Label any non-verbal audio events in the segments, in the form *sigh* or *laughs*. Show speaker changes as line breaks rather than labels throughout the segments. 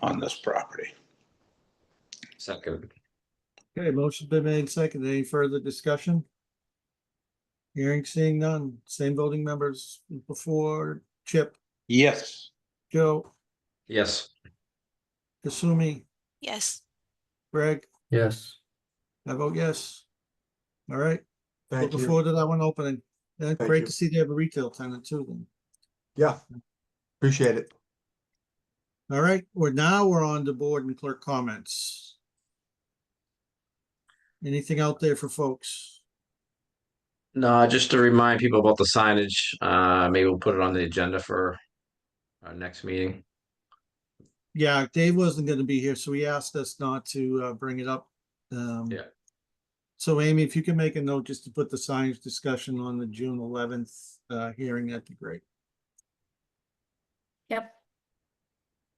on this property.
Second,
Okay, motion's been made and seconded. Any further discussion? Hearing seeing none. Same voting members as before. Chip,
Yes,
Joe,
yes,
Kasumi,
Yes,
Greg,
Yes,
I vote yes. All right,
Thank
looking
you.
forward to that one opening. And
Thank
great
you.
to see they have a retail tenant too then.
Yeah. Appreciate it.
All right, we're now we're on the board and clerk comments. Anything out there for folks?
no, just to remind people about the signage, uh, maybe we'll put it on the agenda for our next meeting.
Yeah, Dave wasn't gonna be here, so he asked us not to uh bring it up. Um.
Yeah.
So Amy, if you can make a note just to put the science discussion on the June eleventh uh hearing, that'd be great.
Yep,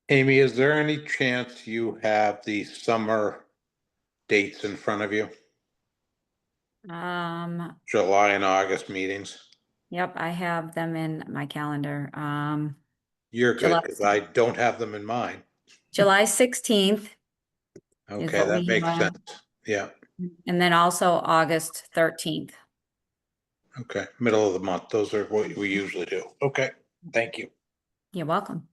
Amy, is there any chance you have the summer dates in front of you?
um,
July and August meetings?
yep, I have them in my calendar. Um,
You're good,
July.
because I don't have them in mind.
July sixteenth
Okay,
what
that
we
makes
have.
sense. Yeah,
and then also August thirteenth.
okay, middle of the month. Those are what we usually do. Okay, thank you.
You're welcome.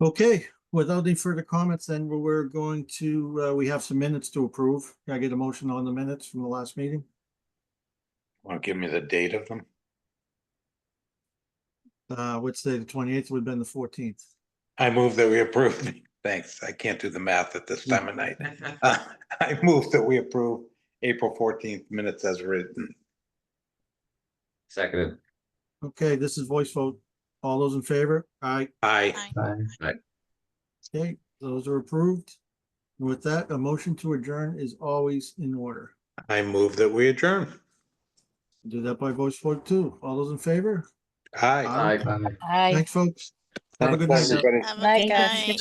Okay, without any further comments, then we- we're going to, uh, we have some minutes to approve. Can I get a motion on the minutes from the last meeting?
Want to give me the date of them?
Uh, which day, the twenty-eighth would have been the fourteenth.
I move that we approve. the- Thanks. I can't do the math at this time of night. *laughs* Uh, I move that we approve April fourteenth minutes as written.
Seconded,
Okay, this is voice vote. All those in favor? Aye.
Aye.
Aye.
I
Okay, those are approved. With that, a motion to adjourn is always in order.
I move that we adjourn.
Do that by voice vote too. All those in favor?
Aye.
aye.
Aye.
Thanks, folks. Have a good
Thanks,
night.
everybody.
have a
Night,
good
guys.
night.